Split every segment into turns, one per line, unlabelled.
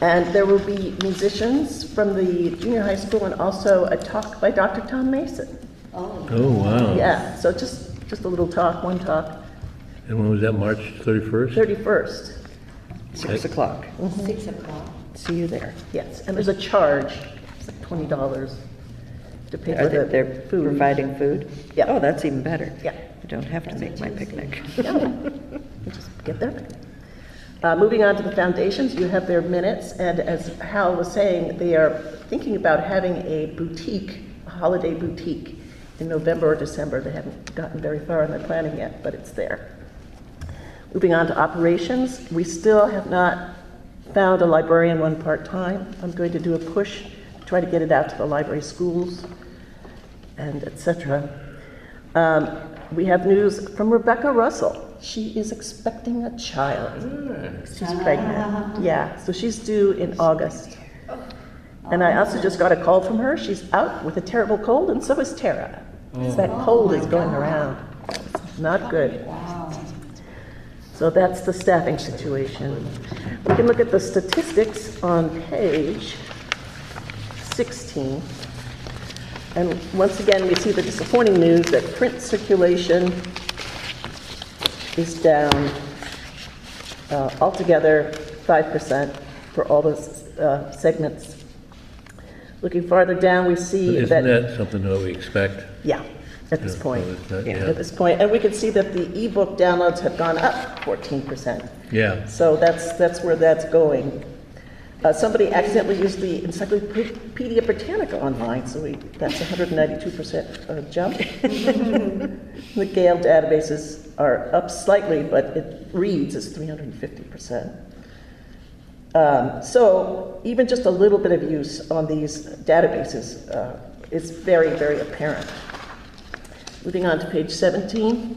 And there will be musicians from the junior high school and also a talk by Dr. Tom Mason.
Oh, wow.
Yeah, so just, just a little talk, one talk,
And when was that, March 31st?
31st,
Six o'clock.
Six o'clock.
See you there.
yes. And there's a charge, it's like $20 to pay
Are
for
they,
the
they're
food.
providing food?
Yeah.
Oh, that's even better.
Yeah.
I don't have to make my picnic.
No, you just get there. Uh, Moving on to the foundations, you have their minutes, and as Hal was saying, they are thinking about having a boutique, a holiday boutique, in November or December. They haven't gotten very far in their planning yet, but it's there. Moving on to operations, we still have not found a librarian one part-time. I'm going to do a push, try to get it out to the library schools and et cetera. Um, We have news from Rebecca Russell. She is expecting a child. She's pregnant. Yeah, so she's due in August. And I also just got a call from her. She's out with a terrible cold, and so is Tara. 'Cause That cold is going around. It's Not good. So that's the staffing situation. We can look at the statistics on page 16. And once again, we see the disappointing news that print circulation is down uh, altogether 5% for all those uh, segments. Looking farther down, we see
Isn't
that...
that something that we expect?
Yeah, at this
Yeah,
point.
so it's not- yeah.
At this point, and we can see that the ebook downloads have gone up 14%.
Yeah.
So that's, that's where that's going. Uh, Somebody accidentally used the Encyclopedia Britannica online, so we, that's 192% uh, jump. The Gale databases are up slightly, but it reads as 350%. Um, So even just a little bit of use on these databases uh, is very, very apparent. Moving on to page 17.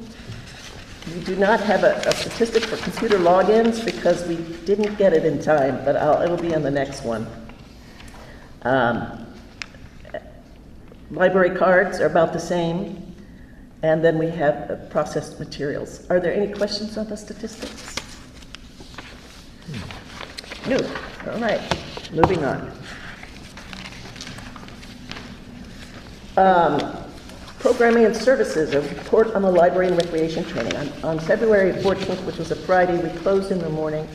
We do not have a a statistic for computer logins because we didn't get it in time, but I'll- it'll be on the next one. Um, Library cards are about the same, and then we have uh, processed materials. Are there any questions on the statistics?
No,
All right.
moving on.
Programming and Services, a report on the library and recreation training. On- On February 14th, which was a Friday, we closed in the morning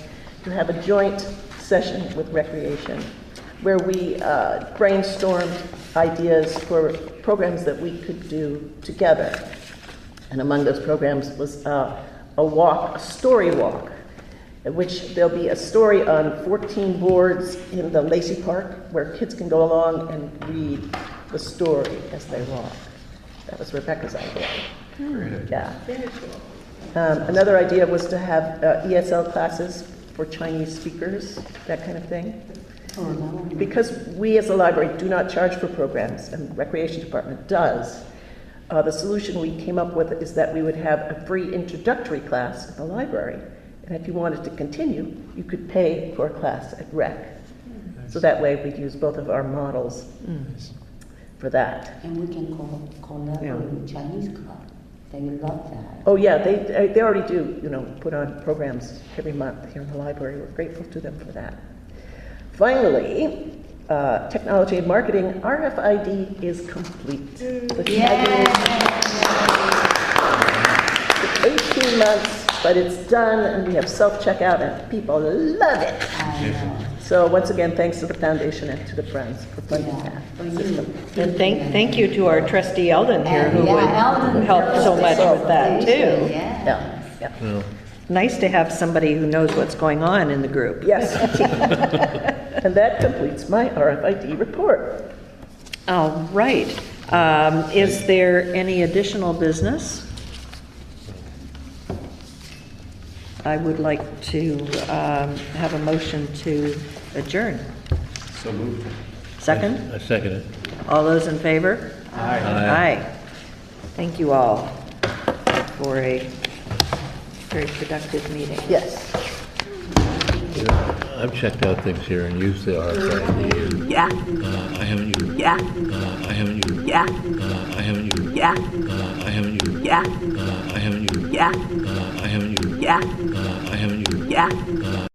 to have a joint session with recreation where we uh, brainstormed ideas for programs that we could do together. And among those programs was uh, a walk, a story walk, in which there'll be a story on 14 boards in the Lacey Park where kids can go along and read the story as they walk. That was Rebecca's idea. Yeah. Um, Another idea was to have uh, ESL classes for Chinese speakers, that kind of thing. Because we as a library do not charge for programs, and Recreation Department does, uh, the solution we came up with is that we would have a free introductory class at the library. And if you wanted to continue, you could pay for a class at rec. So that way we'd use both of our models for that.
And we can call, collaborate with Chinese club. They love that.
Oh, yeah, they, they- they already do, you know, put on programs every month here in the library. We're grateful to them for that. Finally, uh, technology and marketing, RFID is complete. The tagging took 18 months, but it's done, and we have self-checkout, and people love it.
I know.
So once again, thanks to the foundation and to the Friends for funding
Yeah,
that.
for uh, you.
And thank, thank you to our trustee Eldon here who
Yeah, Alvin
would help so
Brooks
much
is
with that
presentation,
too.
Yeah.
Yeah, yeah.
Well,
Nice to have somebody who knows what's going on in the group.
Yes. And that completes my RFID report.
All right. Um, Is there any additional business? I would like to um, have a motion to adjourn. So moved. Second?
I second it.
All those in favor?
Aye.
Aye. Thank you all for a very productive meeting.
Yes.
Yeah, I've checked out things here and used the RFID.
Yeah,
Uh, I haven't used.
yeah,
Uh, I haven't used.
yeah,
Uh, I haven't used.
yeah,
Uh, I haven't used.
yeah,
Uh, I haven't used.
yeah,
Uh, I haven't used.
yeah,
Uh, I haven't used.
yeah.